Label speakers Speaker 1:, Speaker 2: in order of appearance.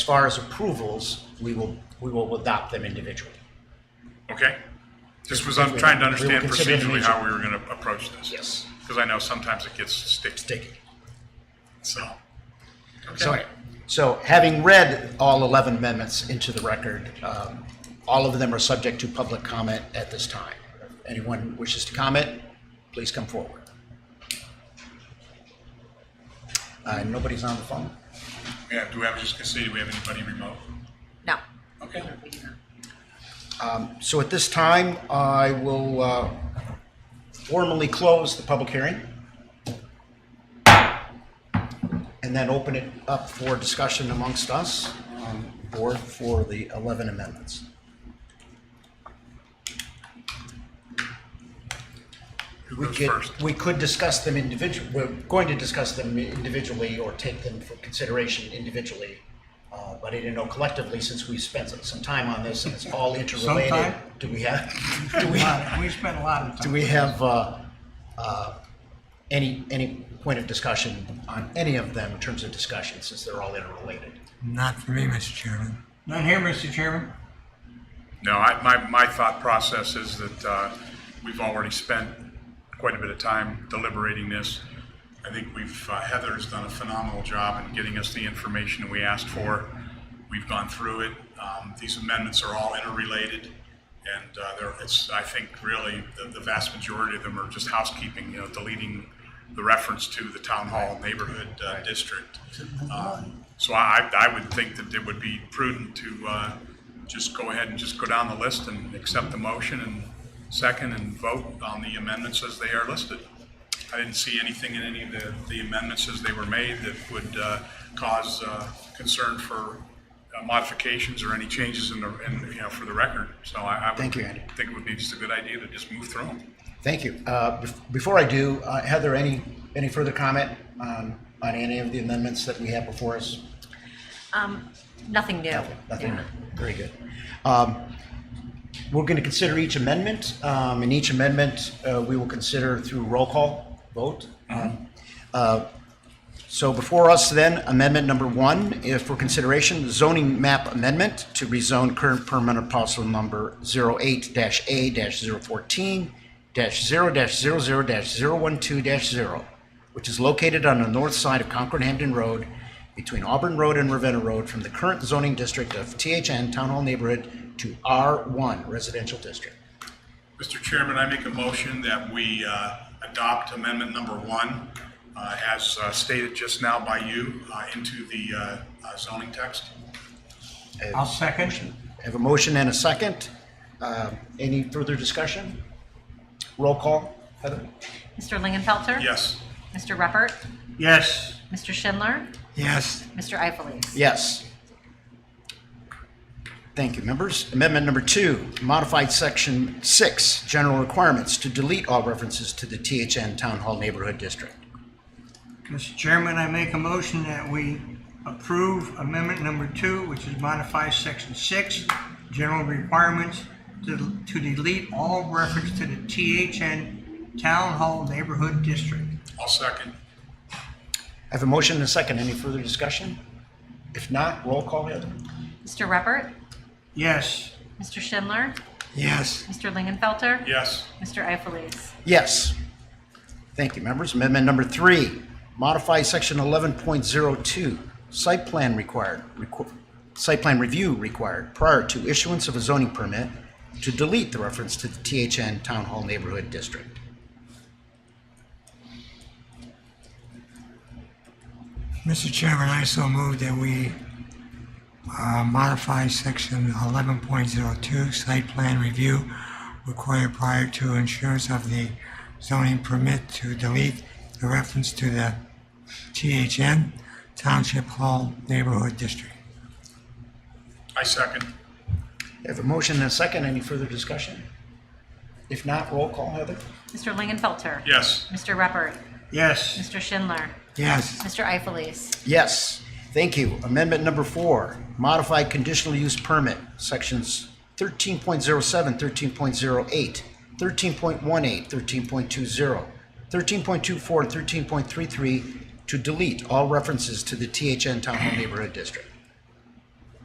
Speaker 1: As far as approvals, we will, we will adopt them individually.
Speaker 2: Okay? Just was, I'm trying to understand
Speaker 1: consider it an
Speaker 2: procedurally how we were going to approach this.
Speaker 1: Yes.
Speaker 2: Because I know sometimes it gets sticky,
Speaker 1: Sticky.
Speaker 2: so.
Speaker 1: So,
Speaker 2: Okay.
Speaker 1: so having read all 11 amendments into the record, um, all of them are subject to public comment at this time. If Anyone wishes to comment, please come forward. Uh, Nobody's on the phone?
Speaker 2: Yeah, do we have, just consider, do we have anybody remote?
Speaker 3: No.
Speaker 2: Okay.
Speaker 1: So at this time, I will uh, formally close the public hearing and then open it up for discussion amongst us, um, board, for the 11 amendments.
Speaker 2: Who
Speaker 1: We
Speaker 2: goes
Speaker 1: could,
Speaker 2: first?
Speaker 1: we could discuss them individually, we're going to discuss them individually or take them for consideration individually. uh, But I didn't know collectively, since we spent some time on this and it's all interrelated,
Speaker 4: Sometime.
Speaker 1: do we have, do we?
Speaker 4: lot- We spent a lot of
Speaker 1: Do
Speaker 4: time.
Speaker 1: we have uh, uh, any, any point of discussion on any of them in terms of discussion, since they're all interrelated?
Speaker 5: Not for me, Mr. Chairman.
Speaker 4: None here, Mr. Chairman?
Speaker 2: No, I, my, my thought process is that, uh, we've already spent quite a bit of time deliberating this. I think we've, uh, Heather's done a phenomenal job in getting us the information we asked for. We've gone through it. Um, these amendments are all interrelated. And, uh, there, it's, I think really, the, the vast majority of them are just housekeeping, you know, deleting the reference to the town hall neighborhood, uh, district. Um, So I, I I would think that it would be prudent to, uh, just go ahead and just go down the list and accept the motion and second and vote on the amendments as they are listed. I didn't see anything in any of the, the amendments as they were made that would, uh, cause, uh, concern for uh, modifications or any changes in the, in, you know, for the record. So I, I would.
Speaker 1: Thank you, Andy.
Speaker 2: Think it would be just a good idea to just move through them.
Speaker 1: Thank you. Uh, bef- Before I do, uh, Heather, any, any further comment on, on any of the amendments that we have before us?
Speaker 3: Um, nothing new.
Speaker 1: Nothing?
Speaker 3: Yeah.
Speaker 1: Very good. Um, We're going to consider each amendment. Um, And each amendment, uh, we will consider through roll call vote. Um, uh, So before us then, amendment number one, is for consideration, zoning map amendment to rezone current permanent parcel number 08-A-014-0-00-012-0, which is located on the north side of Concord Hampton Road between Auburn Road and Ravenna Road from the current zoning district of THN Town Hall Neighborhood to R1 Residential District.
Speaker 2: Mr. Chairman, I make a motion that we uh, adopt amendment number one uh, as uh, stated just now by you uh, into the uh, uh, zoning text.
Speaker 4: I'll second.
Speaker 1: I Have a Uh, motion and a second. Um, Any further discussion? Roll call, Heather?
Speaker 3: Mr. Lingenfelter?
Speaker 2: Yes.
Speaker 3: Mr. Repert?
Speaker 4: Yes.
Speaker 3: Mr. Schindler?
Speaker 5: Yes,
Speaker 3: Mr. Ifelis?
Speaker 1: Yes. Thank you, members. Amendment number two, modified section six, general requirements to delete all references to the THN Town Hall Neighborhood District.
Speaker 4: Mr. Chairman, I make a motion that we approve amendment number two, which is modify section six, general requirements to to delete all reference to the THN Town Hall Neighborhood District.
Speaker 2: I'll second.
Speaker 1: I have a motion and a second. Any further discussion? If not, roll call, Heather.
Speaker 3: Mr. Repert?
Speaker 4: Yes.
Speaker 3: Mr. Schindler?
Speaker 5: yes,
Speaker 3: Mr. Lingenfelter?
Speaker 2: Yes.
Speaker 3: Mr. Ifelis?
Speaker 1: Yes. Thank you, members. Amendment number three, modify section 11.02, site plan required, requ- site plan review required prior to issuance of a zoning permit to delete the reference to the THN Town Hall Neighborhood District.
Speaker 5: Mr. Chairman, I so move that we uh, modify section 11.02 site plan review required prior to insurance of the zoning permit to delete the reference to the THN Township Hall Neighborhood District.
Speaker 2: I second.
Speaker 1: I have a motion and a second. Any further discussion? If not, roll call, Heather.
Speaker 3: Mr. Lingenfelter?
Speaker 2: Yes.
Speaker 3: Mr. Repert?
Speaker 4: Yes.
Speaker 3: Mr. Schindler?
Speaker 5: Yes,
Speaker 3: Mr. Ifelis?
Speaker 1: Yes, thank you. Amendment number four, modified conditional use permit, sections 13.07, 13.08, 13.18, 13.20, 13.24, and 13.33 to delete all references to the THN Town Hall Neighborhood District.